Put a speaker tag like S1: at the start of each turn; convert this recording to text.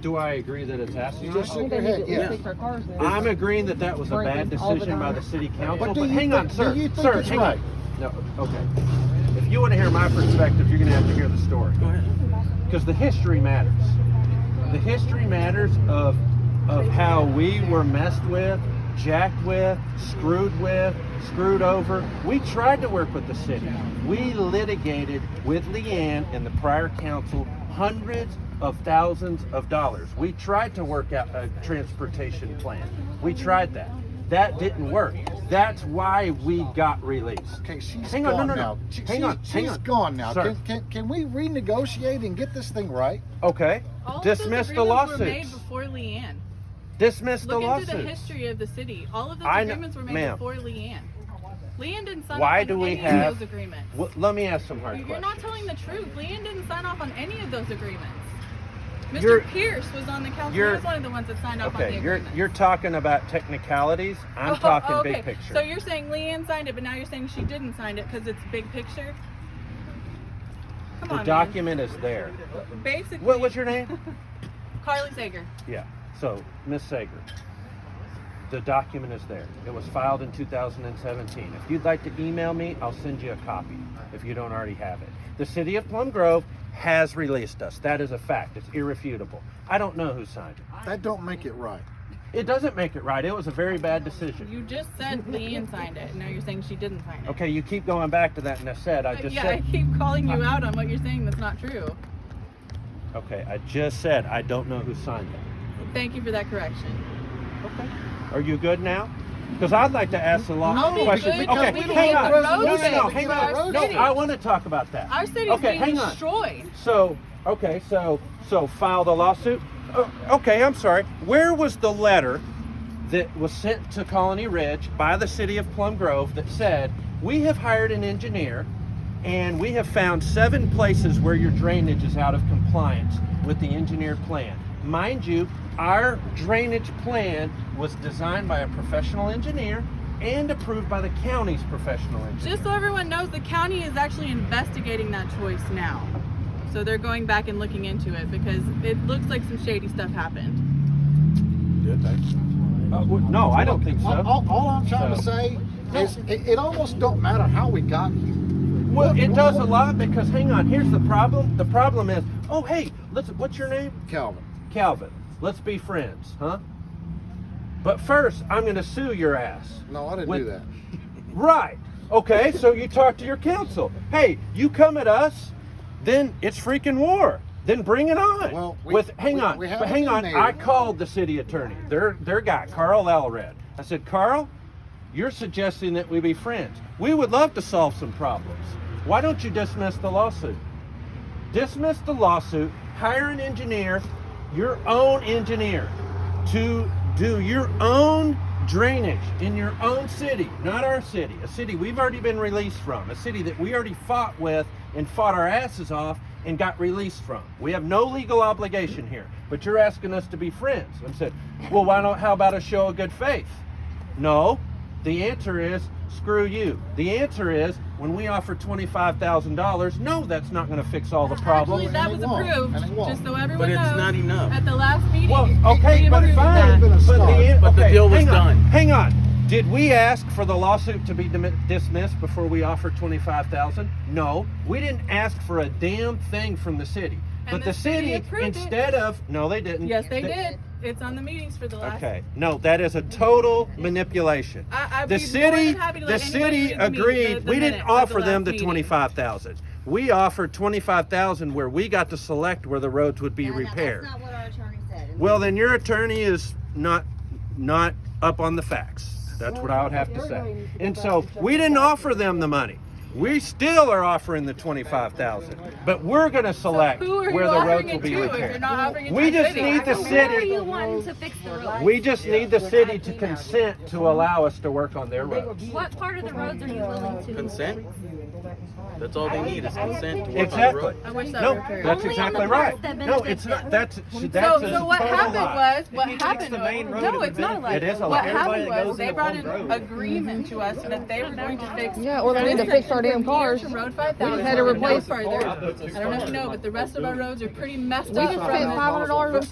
S1: do I agree that it's Oh.
S2: You
S1: absolutely?
S2: just shook your
S3: They need
S2: head,
S3: to
S2: yeah.
S3: stick their cars there.
S1: I'm agreeing that that was a bad
S3: Breaking all the
S1: decision by the
S3: time.
S1: city council,
S2: But do
S1: but
S2: you
S1: hang on,
S2: thi- do
S1: sir,
S2: you think
S1: sir,
S2: it's
S1: hang on.
S2: right?
S1: No, okay. If you wanna hear my perspective, you're gonna have to hear the story. Cause the history matters. The history matters of, of how we were messed with, jacked with, screwed with, screwed over. We tried to work with the city. We litigated with Leanne and the prior council hundreds of thousands of dollars. We tried to work out a transportation plan. We tried that. That didn't work. That's why we got released.
S2: Okay, she's
S1: Hang on, no,
S2: gone
S1: no, no.
S2: now. She-
S1: Hang on,
S2: she's,
S1: hang
S2: she's
S1: on.
S2: gone now.
S1: Sir.
S2: Can, can, can we renegotiate and get this thing right?
S1: Okay.
S4: All of those
S1: Dismiss the
S4: agreements Were
S1: lawsuits.
S4: made before Leanne.
S1: Dismiss the
S4: Look into the
S1: lawsuits.
S4: history of the city. All of those
S1: I kn-
S4: agreements were made
S1: ma'am.
S4: before Leanne. Leanne didn't sign
S1: Why
S4: off
S1: do
S4: on
S1: we
S4: any
S1: have-
S4: of those agreements.
S1: Well, let me ask some hard
S4: You're not
S1: questions.
S4: telling the truth. Leanne didn't sign off on any of those agreements. mister
S1: You're-
S4: Pierce was on the council.
S1: you're-
S4: He was one of the ones that signed off on the
S1: okay, you're
S4: agreements.
S1: you're talking about technicalities. I'm
S4: Oh,
S1: talking
S4: oh, okay.
S1: big picture.
S4: So you're saying Leanne signed it, but now you're saying she didn't sign it because it's big picture. Come
S1: the
S4: on,
S1: document is there.
S4: Man. Basically,
S1: What was your name?
S4: Carly Sager.
S1: Yeah. So, Miss Sager, the document is there. It was filed in 2017. If you'd like to email me, I'll send you a copy if you don't already have it. The city of Plum Grove has released us. That is a fact. It's irrefutable. I don't know who signed it.
S2: That don't make it right.
S1: It doesn't make it right. It was a very bad decision.
S4: You just said Leanne signed it, and now you're saying she didn't sign it.
S1: Okay, you keep going back to that, and I said I
S4: Uh,
S1: just
S4: yeah,
S1: said.
S4: I keep calling you out on what you're saying that's not true.
S1: Okay, I just said I don't know who signed it.
S4: Thank you for that correction.
S1: Okay. Are you good now? Because I'd like to ask the law
S2: No,
S1: question.
S4: because
S1: okay,
S4: we don't
S1: hang
S4: get
S1: on.
S4: the
S1: No, no,
S4: roads
S1: no,
S4: in
S1: hang
S4: for our
S1: on. No,
S4: city.
S1: I want to talk about that.
S4: Our city's
S1: okay,
S4: being
S1: hang on.
S4: destroyed.
S1: So, okay, so so file the lawsuit. Oh, okay, I'm sorry. Where was the letter that was sent to Colony Ridge by the city of Plum Grove that said we have hired an engineer and we have found seven places where your drainage is out of compliance with the engineered plan. Mind you, our drainage plan was designed by a professional engineer and approved by the county's professional engineer.
S4: Just so everyone knows, the county is actually investigating that choice now. So they're going back and looking into it because it looks like some shady stuff happened.
S1: Uh, w- no, I don't think so.
S2: All, all- all I'm trying to
S1: So-
S2: say is it, it almost don't matter how we got here.
S1: Well, it does a lot because hang on, here's the problem. The problem is, oh hey, let's. What's your name?
S2: Calvin.
S1: Calvin. Let's be friends, huh? But first, I'm going to sue your ass.
S2: No, I didn't
S1: With-
S2: do that.
S1: Right. Okay. So you talk to your counsel. Hey, you come at us, then it's freaking war. Then bring it on.
S2: Well, we-
S1: with hang
S2: we-
S1: on,
S2: we have
S1: but
S2: it
S1: hang
S2: in
S1: on.
S2: there.
S1: I called the city attorney. Their their guy, Carl Elred. I said, Carl, you're suggesting that we be friends. We would love to solve some problems. Why don't you dismiss the lawsuit? dismiss the lawsuit, hire an engineer, your own engineer, to do your own drainage in your own city, not our city, a city we've already been released from, a city that we already fought with and fought our asses off and got released from. We have no legal obligation here, but you're asking us to be friends. I said, well, why don't, how about a show of good faith? No. The answer is screw you. The answer is when we offer $25,000, no, that's not going to fix all the
S4: Actually,
S1: problems.
S4: that
S2: and
S4: was
S2: it won't,
S4: approved.
S2: and it won't.
S4: Just so everyone
S5: But it's
S4: knows.
S5: not enough.
S4: At the last meeting.
S1: Well,
S4: we
S1: okay, but
S4: approved
S1: fine.
S4: that.
S2: Been a
S1: But
S2: start.
S1: the, an-
S5: But the
S1: okay,
S5: deal was
S1: hang on,
S5: done.
S1: Hang on. Did we ask for the lawsuit to be dimi- dismissed before we offered 25,000? No. We didn't ask for a damn thing from the city.
S4: And
S1: but
S4: the
S1: the,
S4: city
S1: city,
S4: approved it.
S1: instead of no, they didn't.
S4: Yes, they did. It's on the meetings for the last.
S1: Okay. No, that is a total manipulation.
S4: I- I'd
S1: the
S4: be more than
S1: city,
S4: happy to
S1: the
S4: let
S1: city
S4: anybody read the meeting-
S1: agreed.
S4: the- the
S1: we
S4: minutes
S1: didn't
S4: of the
S1: offer them
S4: last
S1: the
S4: meeting.
S1: twenty-five thousand. We offered twenty-five thousand where we got to select where the roads would be
S3: No, no,
S1: repaired.
S3: That's not what our attorney said. And
S1: well, then your attorney is not not up on the facts. That's what I would have to say. And so we didn't offer them the money. We still are offering the twenty-five thousand, but we're going to select
S4: Who are you
S1: where the roads
S4: offering
S1: will
S4: it
S1: be
S4: to if you're
S1: repaired.
S4: not offering it to
S1: We
S4: the
S1: just
S4: city?
S1: need the
S6: Where are
S1: city.
S6: you wanting to fix the roads?
S1: We just need the city to consent to allow us to work on their roads.
S6: What part of the roads are you willing to?
S5: Consent? That's all they need is consent to work on the
S1: Exactly.
S5: road.
S4: I wish that
S1: No,
S4: were true.
S1: that's
S6: Only on
S1: exactly
S6: the
S1: right.
S6: parts that
S1: No,
S6: benefit
S1: it's not,
S6: them.
S1: that's, that's
S4: So,
S1: a
S4: so what happened
S1: total lie.
S4: was, what happened was, no, it's not a lie.
S1: It is a
S4: What
S1: lie.
S4: happened
S1: Everybody
S4: was, they brought an agreement to us that they were going to fix.
S7: Yeah, or they need to fix our damn cars.
S4: From Road five thousand.
S7: had to replace-
S4: further. I don't know if you know, but the rest of our roads are pretty messed up.
S7: We just
S4: from
S7: spent
S4: it.
S7: five hundred dollars on